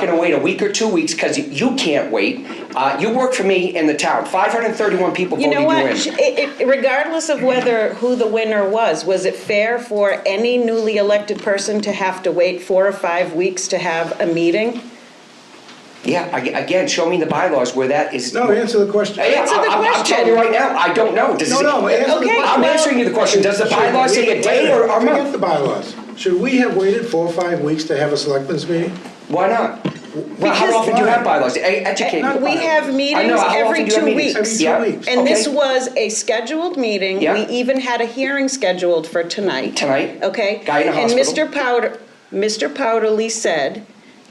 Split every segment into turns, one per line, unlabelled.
going to wait a week or two weeks because you can't wait. Uh, you work for me in the town. 531 people
You
voted
know
you
what?
in.
Sh- it- it- Regardless of whether, who the winner was, was it fair for any newly elected person to have to wait four or five weeks to have a meeting?
Yeah, ag- again, show me the bylaws where that is.
No, answer the question.
Yeah,
Answer the
I'm- I'm- I'm telling you right now, I don't know. Does
No,
it-
no, answer the
Okay,
question.
I'm answering you the question. Does the bylaws say a day or or a
Forget the
month?
bylaws. Should we have waited four or five weeks to have a selectmen's meeting?
Why not? Well, how
Because- Uh,
often do you have bylaws? E- Educate me.
We have
I know,
meetings
how often
every
do you have
two
meetings?
weeks.
Yeah,
Every two weeks.
And this
okay.
was a scheduled meeting.
Yeah.
We even had a hearing scheduled for tonight.
Tonight.
Okay?
Guy in a hospital.
And Mr. Powder, Mr. Powderly said,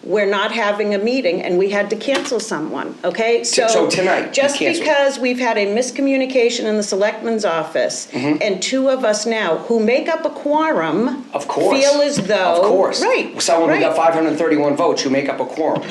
we're not having a meeting, and we had to cancel someone, okay?
so tonight, you
Just
canceled.
because we've had a miscommunication in the selectman's office,
Mm-hmm.
and two of us now, who make up a quorum.
Of course.
Feel as though.
Of course.
Right.
Someone who
right.
got 531 votes, you make up a quorum.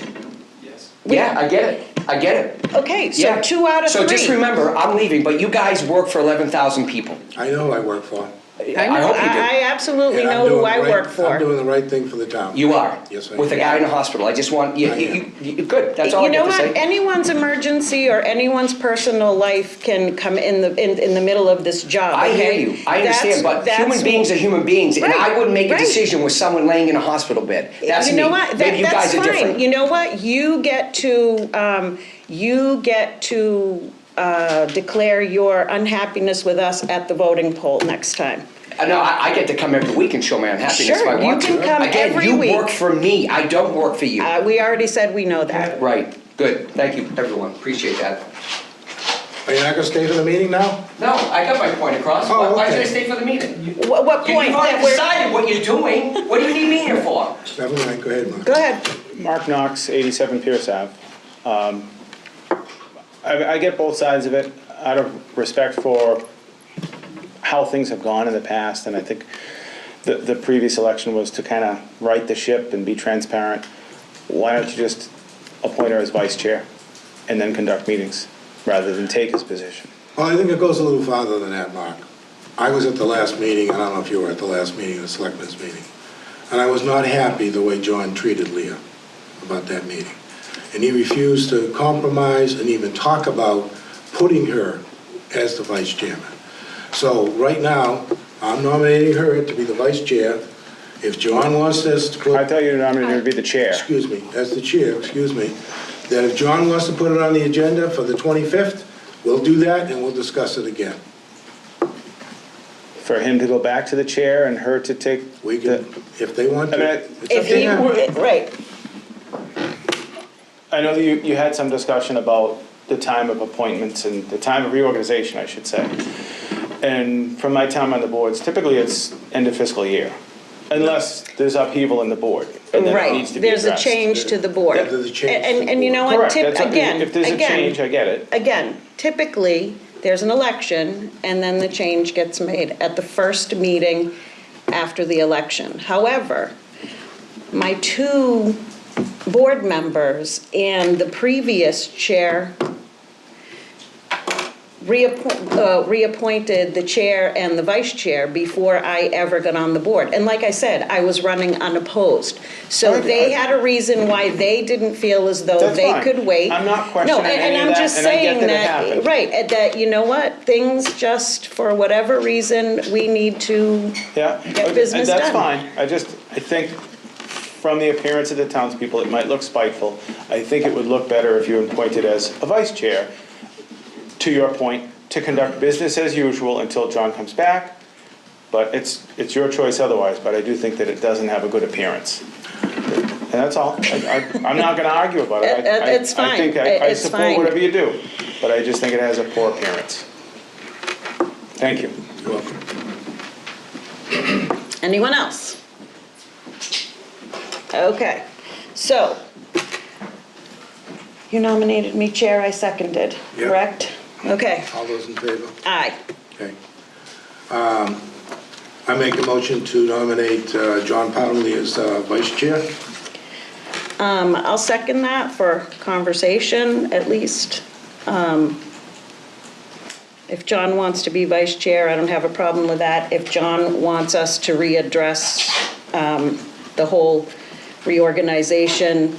Yeah, I get it. I get it.
Okay, so
Yeah.
two out of three.
So just remember, I'm leaving, but you guys work for 11,000 people.
I know who I work for.
I
know-
hope you do.
I absolutely
And I'm
know who
doing the
I
right-
work
I'm
for.
doing the right thing for the town.
You are.
Yes, I
With a
am.
guy in a hospital. I just want, you,
I
you,
am.
you- good, that's all I
You know
got to
what,
say.
anyone's emergency or anyone's personal life can come in the, in, in the middle of this job.
I hear
okay?
you. I understand,
That's-
but human
that's-
beings are human beings, and I
Right,
wouldn't make a
right.
decision with someone laying in a hospital bed. That's
You
me.
know what,
Maybe
that,
you
that's
guys are
fine, you
different.
know what, you get to, um, you get to, uh, declare your unhappiness with us at the voting poll next time.
Uh, No, I, I get to come every week and show my unhappiness if
Sure,
I
you
want to.
can come every
Again,
week.
you work for me, I don't work for you.
Uh, we already said we know that.
Right, good, thank you, everyone, appreciate that.
Are you not gonna stay for the meeting now?
No, I got my point across,
Oh,
why, why should I
okay.
stay for the meeting?
What, what
You-
point
You've
that
already
we're,
decided what you're doing, what do you need me here for?
Never mind, go ahead, Mark.
go ahead.
Mark Knox, 87 Pierce Ave. Um, I I get both sides of it out of respect for how things have gone in the past, and I think the the previous election was to kind of right the ship and be transparent. Why don't you just appoint her as vice chair and then conduct meetings, rather than take his position?
Well, I think it goes a little farther than that, Mark. I was at the last meeting, I don't know if you were at the last meeting, the selectmen's meeting, and I was not happy the way John treated Leah about that meeting. And he refused to compromise and even talk about putting her as the vice chairman. So right now, I'm nominating her to be the vice chair. If John wants this to put
I thought you nominated her to be the chair.
excuse me, as the chair, excuse me, that if John wants to put it on the agenda for the 25th, we'll do that and we'll discuss it again.
For him to go back to the chair and her to take
We can,
the...
if they want
I mean,
to.
I-
it's up
If
to
you,
them.
were- right,
I know that you, you had some discussion about the time of appointments and the time of reorganization, I should say. And from my time on the boards, typically it's end of fiscal year, unless there's upheaval in the board and then it
right,
needs to be
there's a
addressed.
change to the board.
Yeah, there's a
And-
change to
And,
the
and you know
board.
what,
Correct,
tip,
that's, if-
again,
if there's a change, I
again,
get it.
again, typically, there's an election, and then the change gets made at the first meeting after the election. However, my two board members and the previous chair reappoint- uh, reappointed the chair and the vice chair before I ever got on the board. And like I said, I was running unopposed. So they had a reason why they didn't feel as though
That's
they
fine.
could wait.
I'm not questioning
No, and-
any of
I'm
that,
just
and I get
saying
that it happened.
Right, and that, you know what, things just, for whatever reason, we need to,
Yeah.
Get
okay,
business done.
That's fine. I just, I think from the appearance of the townspeople, it might look spiteful. I think it would look better if you were appointed as a vice chair, to your point, to conduct business as usual until John comes back. But it's, it's your choice otherwise, but I do think that it doesn't have a good appearance. And that's all. I, I- I'm not gonna argue about it. I-
It-
I-
it's
I think
fine.
I- I
It's
support
fine.
whatever you do, but I just think it has a poor appearance. Thank you.
You're welcome.
anyone else? Okay, so, you nominated me chair, I seconded,
Yeah.
correct? Okay,
All those in favor?
aye.
Okay. Um, I make a motion to nominate uh, John Powderly as uh, vice chair.
Um, I'll second that for conversation, at least. Um, If John wants to be vice chair, I don't have a problem with that. If John wants us to readdress um, the whole reorganization